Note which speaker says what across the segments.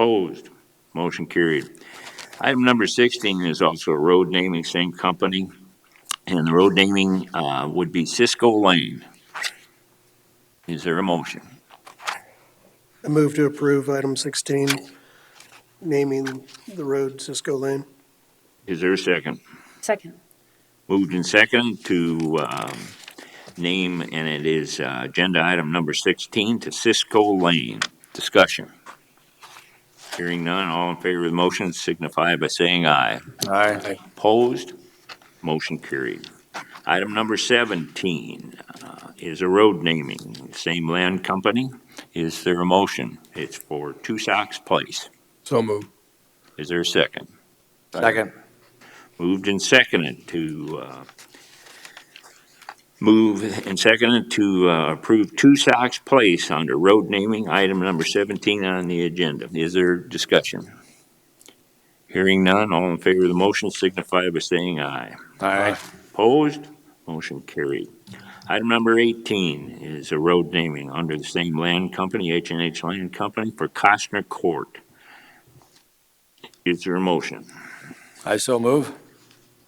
Speaker 1: Opposed? Motion carried. Item number 16 is also a road naming, same company, and the road naming uh, would be Cisco Lane. Is there a motion?
Speaker 2: I move to approve item 16, naming the road Cisco Lane.
Speaker 1: Is there a second?
Speaker 3: Second.
Speaker 1: Moved and second to um, name, and it is uh, agenda item number 16 to Cisco Lane. Discussion. Hearing none, all in favor of the motion signify by saying aye.
Speaker 4: Aye.
Speaker 1: Opposed? Motion carried. Item number 17 uh, is a road naming, same land company. Is there a motion? It's for Two Socks Place.
Speaker 4: So moved.
Speaker 1: Is there a second?
Speaker 4: Second.
Speaker 1: Moved and seconded to, uh, move and seconded to uh, approve Two Socks Place under road naming, item number 17 on the agenda. Is there discussion? Hearing none, all in favor of the motion signify by saying aye.
Speaker 4: Aye.
Speaker 1: Opposed? Motion carried. Item number 18 is a road naming under the same land company, h and H Land Company, for Costner Court. Is there a motion?
Speaker 4: I so move.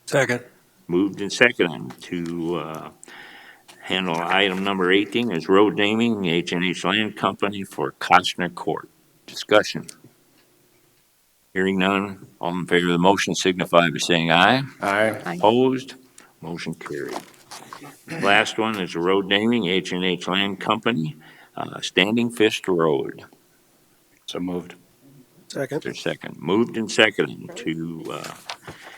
Speaker 4: Second.
Speaker 1: Moved and seconded to uh, handle item number 18 is road naming, h and H Land Company for Costner Court. Discussion. Hearing none, all in favor of the motion signify by saying aye.
Speaker 4: Aye.
Speaker 3: Aye.
Speaker 1: Opposed? Motion carried. Last one is a road naming, h and H Land Company, uh, Standing Fist Road.
Speaker 4: So moved.
Speaker 2: Second.
Speaker 1: Their second. Moved and seconded to uh,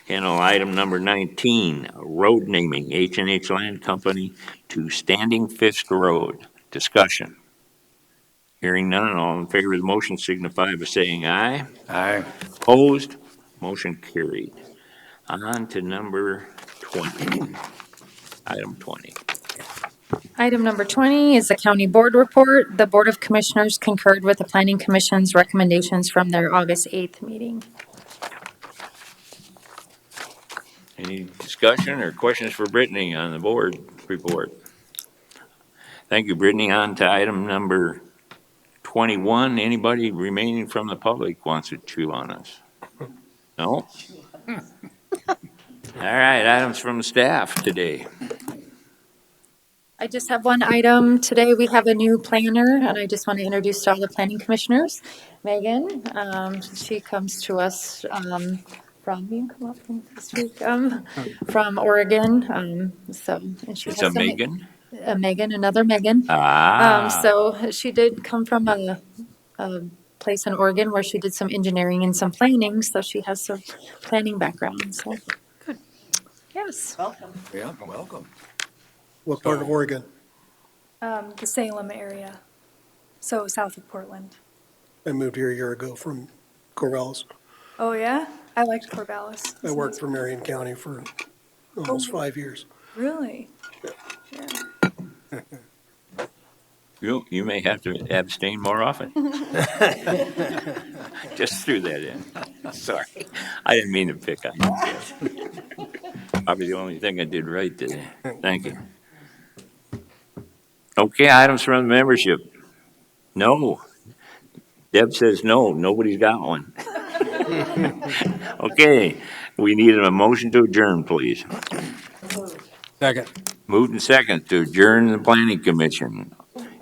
Speaker 1: handle item number 19, road naming, h and H Land Company to Standing Fist Road. Discussion. Hearing none, all in favor of the motion signify by saying aye.
Speaker 4: Aye.
Speaker 1: Opposed? Motion carried. On to number 20, item 20.
Speaker 3: Item number 20 is the county board report. The Board of Commissioners concurred with the Planning Commission's recommendations from their August 8th meeting.
Speaker 1: Any discussion or questions for Brittany on the board report? Thank you, Brittany. On to item number 21. Anybody remaining from the public wants to chew on us? No? All right, items from staff today.
Speaker 3: I just have one item. Today, we have a new planner, and I just want to introduce to all the planning commissioners, Megan. um, She comes to us um, from, you can come up from this week, um, from Oregon, um, so. and she
Speaker 1: It's
Speaker 3: has
Speaker 1: a
Speaker 3: some-
Speaker 1: Megan.
Speaker 3: a Megan, another Megan.
Speaker 1: Ah.
Speaker 3: Um, so she did come from a, a place in Oregon where she did some engineering and some planning, so she has some planning background, so. Good. Yes,
Speaker 4: Yeah, welcome.
Speaker 2: What part of Oregon?
Speaker 5: um, the Salem area, so south of Portland.
Speaker 2: I moved here a year ago from Corvallis.
Speaker 5: Oh yeah, I liked Corvallis.
Speaker 2: I worked for Marion County for almost five years.
Speaker 5: Really?
Speaker 1: You, you may have to abstain more often. Just threw that in. Sorry. I didn't mean to pick on you. Probably the only thing I did right today. Thank you. Okay, items from the membership. No. Deb says no, nobody's got one. Okay, we need a motion to adjourn, please.
Speaker 4: Second.
Speaker 1: Moved and second to adjourn the planning commission.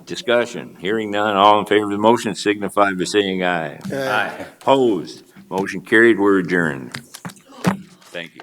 Speaker 1: Discussion, hearing none, all in favor of the motion signify by saying aye.
Speaker 2: Aye.
Speaker 1: Opposed, motion carried, we're adjourned. Thank you.